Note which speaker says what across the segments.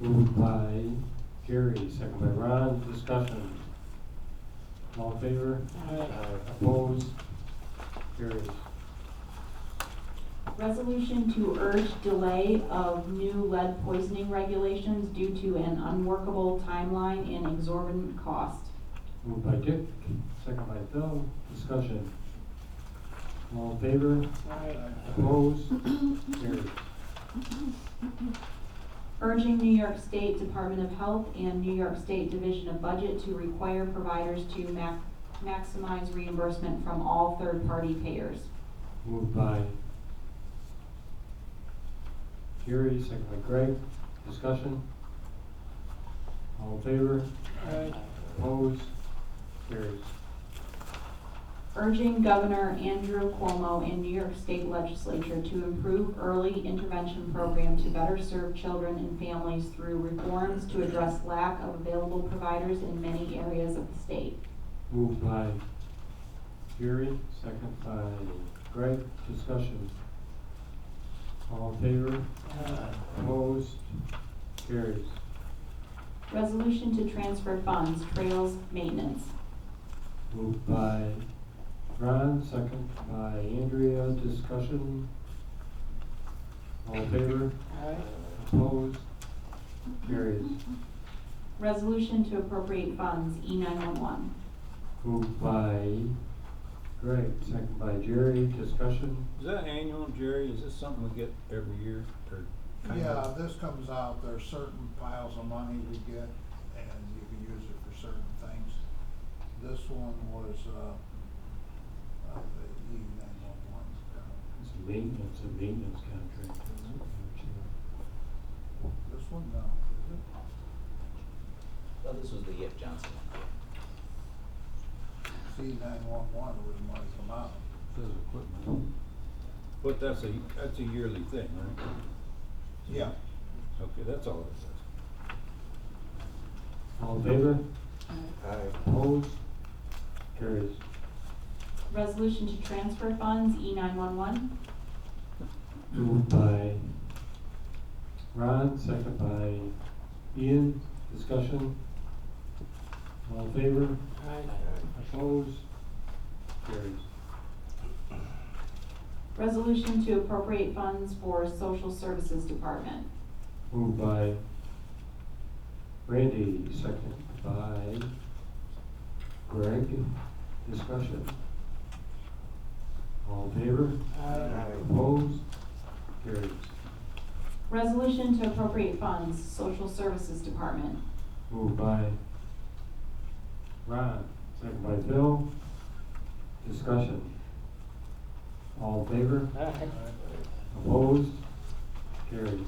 Speaker 1: Moved by Gary, second by Ron, discussion. All in favor?
Speaker 2: Aye.
Speaker 1: Opposed? Carries.
Speaker 2: Resolution to urge delay of new lead poisoning regulations due to an unworkable timeline and exorbitant cost.
Speaker 1: Moved by Dick, second by Phil, discussion. All in favor? Opposed? Carries.
Speaker 2: Urging New York State Department of Health and New York State Division of Budget to require providers to mac- maximize reimbursement from all third-party payers.
Speaker 1: Moved by Gary, second by Greg, discussion. All in favor? Opposed? Carries.
Speaker 2: Urging Governor Andrew Cuomo and New York State Legislature to improve early intervention program to better serve children and families through reforms to address lack of available providers in many areas of the state.
Speaker 1: Moved by Gary, second by Greg, discussion. All in favor? Opposed? Carries.
Speaker 2: Resolution to transfer funds, trails maintenance.
Speaker 1: Moved by Ron, second by Andrea, discussion. All in favor? Opposed? Carries.
Speaker 2: Resolution to appropriate funds, E nine-one-one.
Speaker 1: Moved by Greg, second by Jerry, discussion.
Speaker 3: Is that annual, Jerry? Is this something we get every year or? kind
Speaker 4: Yeah,
Speaker 3: of?
Speaker 4: this comes out, there's certain piles of money we get, and you can use it for certain things. This one was, uh, uh, the E nine one one.
Speaker 1: It's a maintenance, a maintenance contract.
Speaker 4: This one, no, is it?
Speaker 5: Oh, this was the Yip Johnson one.
Speaker 4: C nine one one would have marked them out.
Speaker 3: Says equipment. But that's a, that's a yearly thing, right?
Speaker 4: Yeah.
Speaker 3: Okay, that's all it says.
Speaker 1: All in favor? Opposed? Carries.
Speaker 2: Resolution to transfer funds, E nine-one-one.
Speaker 1: Moved by Ron, second by Ian, discussion. All in favor? Opposed? Carries.
Speaker 2: Resolution to appropriate funds for social services department.
Speaker 1: Moved by Randy, second by Greg. Discussion. All in favor? Opposed? Carries.
Speaker 2: Resolution to appropriate funds, social services department.
Speaker 1: Moved by Ron, second by Phil. Discussion. All in favor? Opposed? Carries.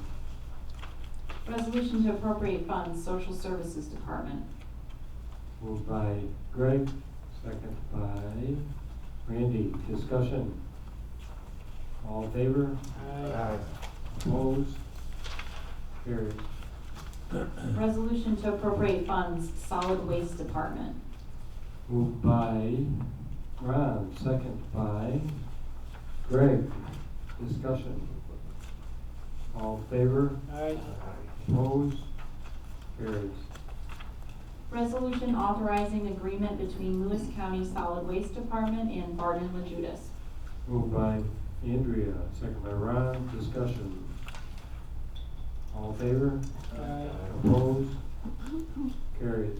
Speaker 2: Resolution to appropriate funds, social services department.
Speaker 1: Moved by Greg, second by Randy. Discussion. All in favor? Opposed? Carried.
Speaker 2: Resolution to appropriate funds, solid waste department.
Speaker 1: Moved by Ron, second by Greg. Discussion. All in favor? Opposed? Carries.
Speaker 2: Resolution authorizing agreement between Lewis County Solid Waste Department and Barden La Judas.
Speaker 1: Moved by Andrea, second by Ron. Discussion. All in favor? Opposed? Carried.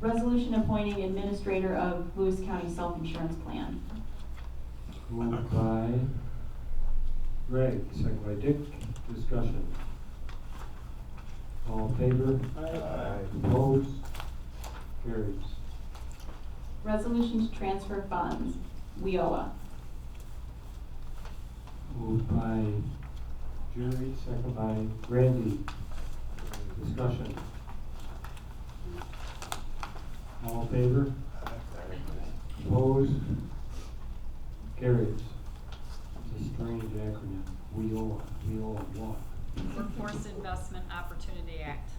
Speaker 2: Resolution appointing administrator of Lewis County Self-Insurance Plan.
Speaker 1: Moved by Greg, second by Dick. Discussion. All in favor? Opposed? Carries.
Speaker 2: Resolution to transfer funds, WIOA.
Speaker 1: Moved by Jerry, second by Randy. Discussion. All in favor? Opposed? Carries. It's a strange acronym. We all, we all want.
Speaker 6: Workforce Investment Opportunity Act.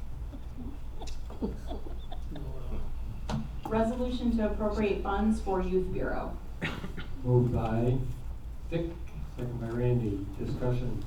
Speaker 2: Resolution to appropriate funds for Youth Bureau.
Speaker 1: Moved by Dick, second by Randy. Discussion.